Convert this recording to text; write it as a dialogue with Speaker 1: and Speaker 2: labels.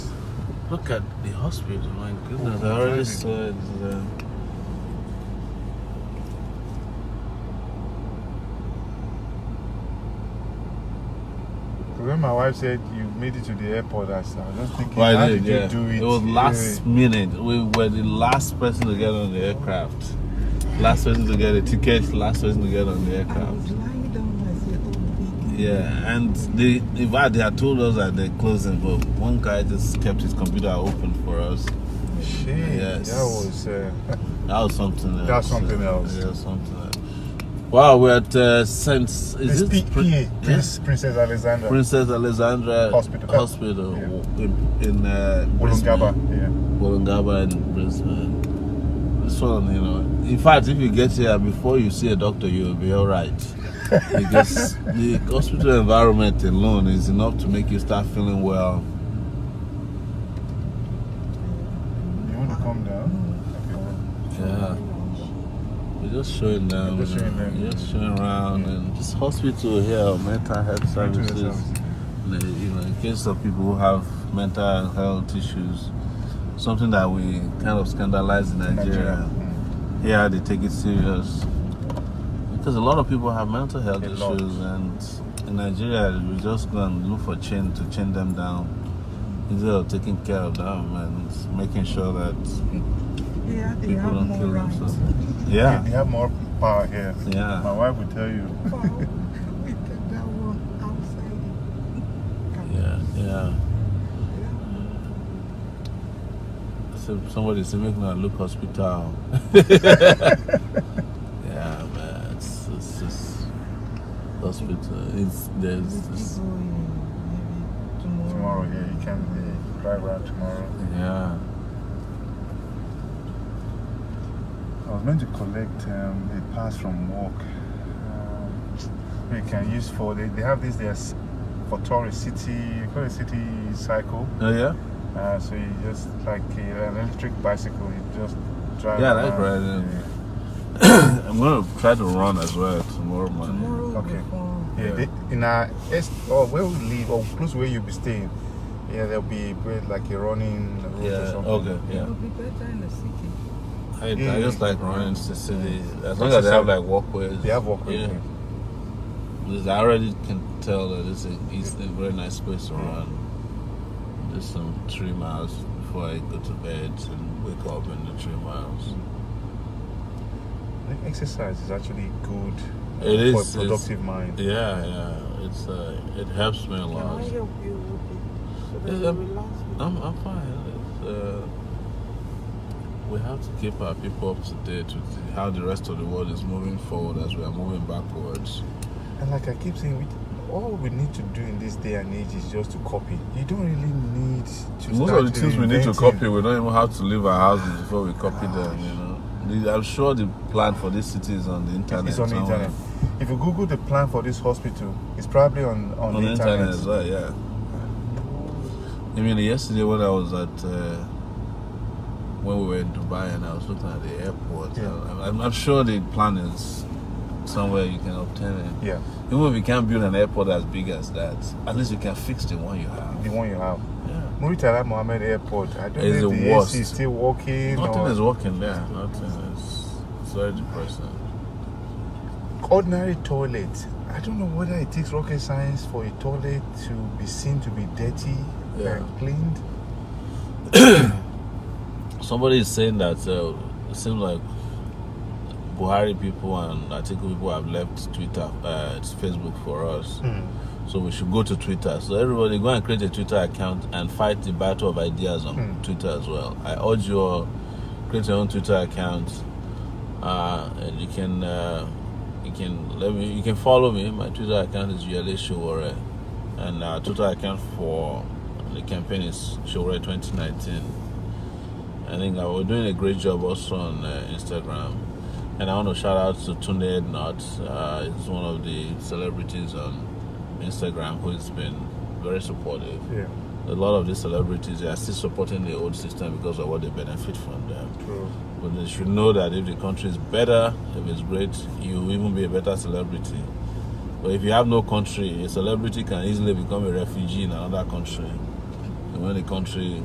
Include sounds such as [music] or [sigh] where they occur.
Speaker 1: Look at the hospital, my goodness.
Speaker 2: Oh,
Speaker 1: I already
Speaker 2: driving.
Speaker 1: saw it there.
Speaker 2: uh, Because when my wife said you made it to the airport, I said, I was just thinking,
Speaker 1: Well,
Speaker 2: how
Speaker 1: I
Speaker 2: did,
Speaker 1: did, yeah.
Speaker 2: you do it?
Speaker 1: It was last
Speaker 2: Yeah.
Speaker 1: minute. We were the last person to get on the aircraft. Last person to get a ticket, last person to get on the
Speaker 3: I was
Speaker 1: aircraft.
Speaker 3: lying down as a old lady.
Speaker 1: Yeah, and they, in fact, they had told us that they're closing, but one guy just kept his computer open for us.
Speaker 2: Shit,
Speaker 1: Yes.
Speaker 2: that was. Uh,
Speaker 1: That was something else.
Speaker 2: That's something else.
Speaker 1: Yeah, something else. Wow, we're at uh, Saint. Is
Speaker 2: [laughs] it's
Speaker 1: it
Speaker 2: PA,
Speaker 1: Pri-
Speaker 2: Prince, Princess Alexandra.
Speaker 1: Princess Alexandra
Speaker 2: Hospital.
Speaker 1: Hospital
Speaker 2: Yeah.
Speaker 1: in, in uh,
Speaker 2: Wollongaba,
Speaker 1: Brisbane.
Speaker 2: yeah.
Speaker 1: Wollongaba in Brisbane. This one, you know. In fact, if you get here before you see a doctor, you'll be all right.
Speaker 2: [laughs]
Speaker 1: because the hospital environment alone is enough to make you start feeling well.
Speaker 2: You want to come down?
Speaker 1: Yeah. We're just showing them.
Speaker 2: Just showing them.
Speaker 1: you know, just showing around. And this hospital here, mental health
Speaker 2: Okay.
Speaker 1: services. the- you know, in case of people who have mental health issues, something that we kind of scandalize in Nigeria.
Speaker 2: Nigeria. Mm.
Speaker 1: Here they take it serious because a lot of people have mental health
Speaker 2: A
Speaker 1: issues,
Speaker 2: lot.
Speaker 1: and in Nigeria we just go and look for chain to chain them down instead of taking care of them and making sure that
Speaker 3: Yeah, they
Speaker 1: people
Speaker 3: have
Speaker 1: don't kill
Speaker 3: more rights.
Speaker 1: themselves.
Speaker 2: They,
Speaker 1: Yeah,
Speaker 2: they have more power here. My
Speaker 1: yeah,
Speaker 2: wife will tell you.
Speaker 3: Wow, we took that one outside.
Speaker 1: yeah, yeah. So somebody said, make me a look
Speaker 2: [laughs]
Speaker 1: hospital. yeah, man, it's, it's just hospital. It's there's
Speaker 3: Let's
Speaker 1: it's,
Speaker 3: go in maybe tomorrow.
Speaker 2: Tomorrow, yeah, you can uh, drive around tomorrow.
Speaker 1: yeah.
Speaker 2: I was meant to collect um, the pass from work. Um, you can use for they, they have this there's for tourist city you call it city cycle.
Speaker 1: Oh yeah, [coughs]
Speaker 2: Uh, so you just like uh, an electric bicycle, you just drive.
Speaker 1: Yeah, I like
Speaker 2: around.
Speaker 1: riding. I'm gonna try to run as well tomorrow morning.
Speaker 3: Tomorrow
Speaker 2: Okay.
Speaker 3: before.
Speaker 2: Yeah,
Speaker 1: Yeah.
Speaker 2: They, in our est- or where we live or close where you'll be staying, yeah, there'll be great, like a running route or
Speaker 1: Yeah.
Speaker 2: something.
Speaker 1: Okay.
Speaker 3: It
Speaker 1: Yeah.
Speaker 3: will be better in the city.
Speaker 1: I,
Speaker 2: Yeah.
Speaker 1: I just like running to city as long as they have like walkways.
Speaker 2: They have walkway.
Speaker 1: Yeah.
Speaker 2: Yeah.
Speaker 1: Because I already can tell that it's a, it's a very nice place to run. Just some three miles before I go to bed and wake up in the three miles.
Speaker 2: I think exercise is actually good uh,
Speaker 1: It
Speaker 2: for
Speaker 1: is, it's-
Speaker 2: a productive mind.
Speaker 1: Yeah, yeah. It's uh, it helps me a
Speaker 3: Can
Speaker 1: lot.
Speaker 3: I help you with it? So that
Speaker 1: Yeah,
Speaker 3: you
Speaker 1: I'm-
Speaker 3: relax with it?
Speaker 1: I'm I'm fine. It's, uh, we have to keep our people up to date with the- how the rest of the world is moving forward as we are moving backwards.
Speaker 2: And like I keep saying, we, all we need to do in this day and age is just to copy. You don't really need to.
Speaker 1: Most
Speaker 2: start
Speaker 1: of the things we need to
Speaker 2: reinventing.
Speaker 1: copy, we don't even have to leave our houses before we copy them. You know, The- I'm sure the plan for this city is on the internet.
Speaker 2: It's on the
Speaker 1: somewhere.
Speaker 2: internet. If you Google the plan for this hospital, it's probably on on,
Speaker 1: on
Speaker 2: the internet.
Speaker 1: as well, yeah. I mean, yesterday when I was at uh, when we were in Dubai and I was looking at the airport,
Speaker 2: Yeah.
Speaker 1: I, I'm, I'm sure the plan is somewhere you can obtain it.
Speaker 2: Yeah,
Speaker 1: Even if you can't build an airport as big as that, at least you can fix the one you
Speaker 2: the
Speaker 1: have.
Speaker 2: one you have.
Speaker 1: Yeah.
Speaker 2: Muritala Mohammed Airport. I don't
Speaker 1: It's
Speaker 2: know
Speaker 1: the
Speaker 2: if the
Speaker 1: worst.
Speaker 2: AC is still working.
Speaker 1: Nothing
Speaker 2: or-
Speaker 1: is working there. Nothing is. It's very depressing.
Speaker 2: ordinary toilet. I don't know whether it takes rocket science for a toilet to be seen to be dirty
Speaker 1: Yeah.
Speaker 2: and cleaned.
Speaker 1: Somebody is saying that uh, it seems like Buhari people and Atiku people have left Twitter, uh, Facebook for us.
Speaker 2: Hmm,
Speaker 1: So we should go to Twitter. So everybody go and create a Twitter account and fight the battle of ideas on
Speaker 2: Hmm.
Speaker 1: Twitter as well. I urge you all create your own Twitter account. Uh, and you can uh, you can let me you can follow me. My Twitter account is Yale Showore. And our Twitter account for the campaign is Showore 2019. I think uh, we're doing a great job also on uh, Instagram. And I want to shout out to Tunde Ednot. Uh, he's one of the celebrities on Instagram who's been very supportive.
Speaker 2: Yeah,
Speaker 1: A lot of these celebrities they are still supporting the old system because of what they benefit from them.
Speaker 2: true.
Speaker 1: But they should know that if the country is better, if it's great, you will even be a better celebrity. But if you have no country, a celebrity can easily become a refugee in another country. And when the country